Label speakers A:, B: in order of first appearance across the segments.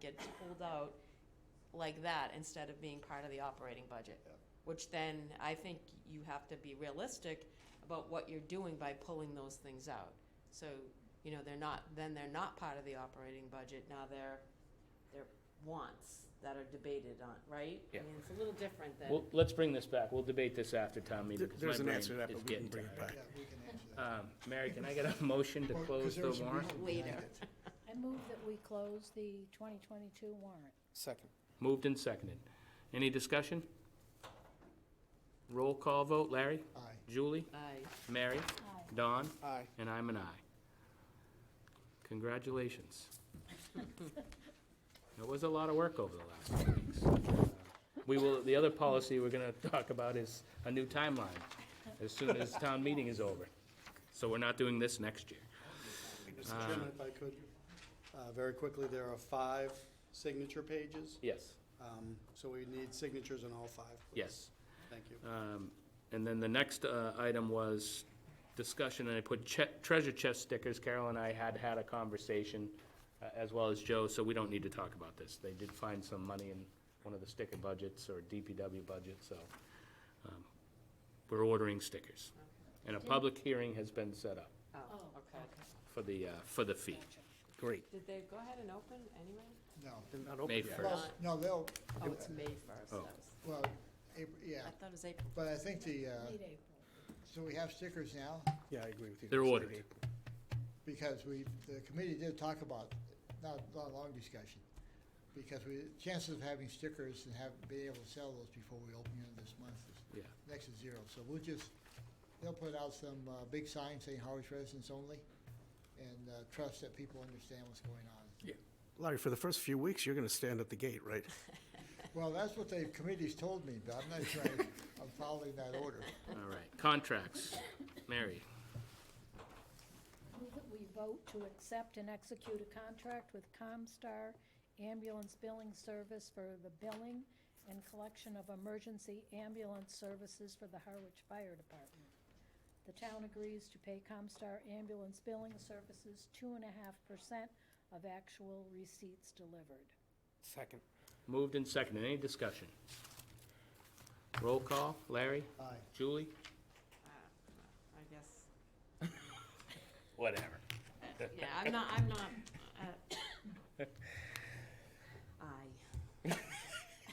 A: gets pulled out like that instead of being part of the operating budget.
B: Yeah.
A: Which then, I think you have to be realistic about what you're doing by pulling those things out. So, you know, they're not, then they're not part of the operating budget, now they're, they're wants that are debated on, right? I
C: Yeah.
A: mean, It's a little different than.
C: Well, let's bring this back. We'll debate this after town meeting.
D: There-
C: 'cause my
D: There's an
C: brain
D: answer to that,
C: is
D: but we can
C: getting
D: bring it
C: tired.
D: back.
B: Yeah, we can answer that.
C: Um, Mary, can I get a motion to
B: Well, 'cause
C: close
B: there
C: the
B: was a
C: warrant?
B: reason behind
A: Later.
B: it.
E: I move that we close the 2022 warrant.
D: Second.
C: Moved and seconded. Any discussion? Roll call vote. Larry?
B: Aye.
C: Julie?
A: Aye.
C: Mary?
E: Aye.
C: Don?
D: Aye.
C: And I'm an aye. Congratulations. It was a lot of work over the last few weeks. Uh, We will, the other policy we're gonna talk about is a new timeline, as soon as town meeting is over. So we're not doing this next year.
F: Mr. Chairman, if I could, uh, very quickly, there are five signature pages,
C: Yes,
F: um, so we need signatures on all five. please.
C: yes.
F: Thank you.
C: Um, And then the next uh, item was discussion, and I put che- treasure chest stickers. Carol and I had had a conversation, uh, as well as Joe, so we don't need to talk about this. They did find some money in one of the sticker budgets or DPW budget, so um, we're ordering stickers. And a public hearing has been set up
A: Oh,
E: Oh,
A: okay.
C: for the, uh, for the fee. Great.
A: Did they go ahead and open anyway?
B: No.
C: May
B: Well,
C: 1st.
B: no, they'll,
A: Oh, it's May first.
C: Oh.
B: well, April, yeah,
A: I thought it was April.
B: but I think the, uh,
E: Late April.
B: so we have stickers now
D: Yeah, I agree with you.
C: They're
D: It's late
C: ordered.
D: April.
B: because we, the committee did talk about, not, not a long discussion. Because we, chances of having stickers and have, being able to sell those before we open it this month is
C: Yeah.
B: next to zero. So we'll just, they'll put out some, uh, big signs saying Harwich residents only and, uh, trust that people understand what's going on.
D: Larry, for the first few weeks, you're going to stand at the gate, right?
B: Well, that's what the committee's told me, but I'm not sure I- I'm following that order.
C: All right. Contracts. Mary,
E: Move that we vote to accept and execute a contract with ComStar Ambulance Billing Service for the billing and collection of emergency ambulance services for the Harwich Fire Department. The town agrees to pay ComStar Ambulance Billing Services two and a half percent of actual receipts delivered.
D: Second.
C: moved and seconded. Any discussion? Roll call. Larry?
B: Aye.
C: Julie?
A: Ah, I guess,
C: Whatever.
A: yeah, I'm not, I'm not, uh, aye.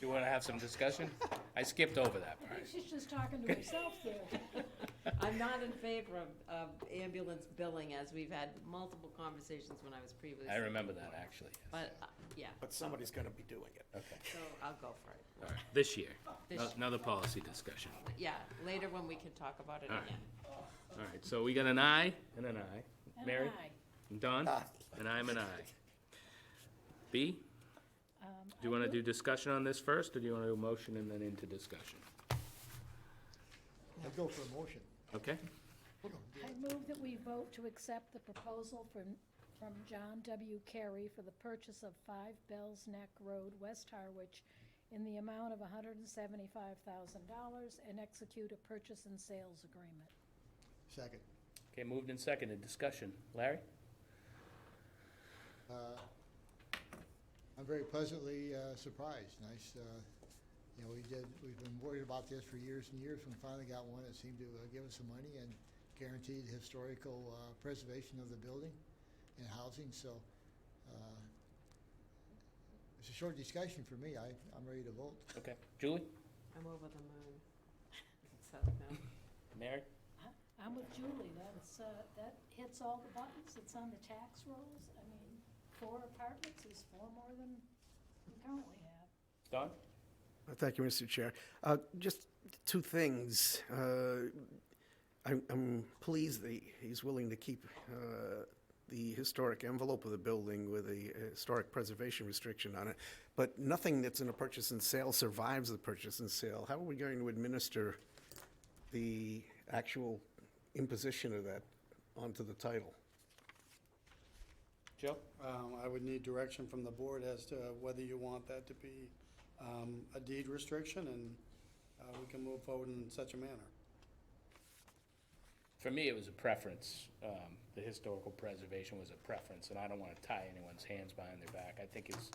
C: You want to have some discussion? I skipped over that part.
E: She's just talking to herself there.
A: I'm not in favor of, of ambulance billing, as we've had multiple conversations when I was previously.
C: I remember that, actually.
A: But, uh, yeah,
D: But somebody's going to be doing it.
A: so I'll go for it.
C: All right, This year,
A: This-
C: another policy discussion.
A: Yeah, later when we can talk about it
C: All right.
A: again.
C: All right, so we got an aye and an aye.
E: And
C: Mary?
E: aye.
C: and Don? And I'm an aye. B,
E: Um,
C: do you
E: I
C: want to
E: move-
C: do discussion on this first, or do you want to do motion and then into discussion?
B: I'd go for a motion.
C: Okay?
E: I move that we vote to accept the proposal from, from John W. Carey for the purchase of five Bell's Neck Road, West Harwich, in the amount of hundred and seventy-five thousand dollars and execute a purchase and sales agreement.
B: Second.
C: Okay, moved and seconded, discussion. Larry?
B: Uh, I'm very pleasantly uh, surprised. Nice, uh, you know, we did, we've been worried about this for years and years. We finally got one that seemed to uh, give us some money and guaranteed historical uh, preservation of the building and housing, so uh, it's a short discussion for me. I, I'm ready to vote.
C: Okay. Julie?
A: I'm over the moon. So, no.
C: Mary?
E: I- I'm with Julie, that's, uh, that hits all the buttons, it's on the tax rolls, I mean, four apartments is four more than we currently have.
C: Don?
D: Uh, Thank you, Mr. Chair. Uh, Just two things. Uh, I'm I'm pleased that he's willing to keep uh, the historic envelope of the building with a historic preservation restriction on it, but nothing that's in a purchase and sale survives the purchase and sale. How are we going to administer the actual imposition of that onto the title?
C: Joe?
F: Um, I would need direction from the board as to whether you want that to be um, a deed restriction, and uh, we can move forward in such a manner.
C: For me, it was a preference. Um, The historical preservation was a preference, and I don't want to tie anyone's hands behind their back. I think it's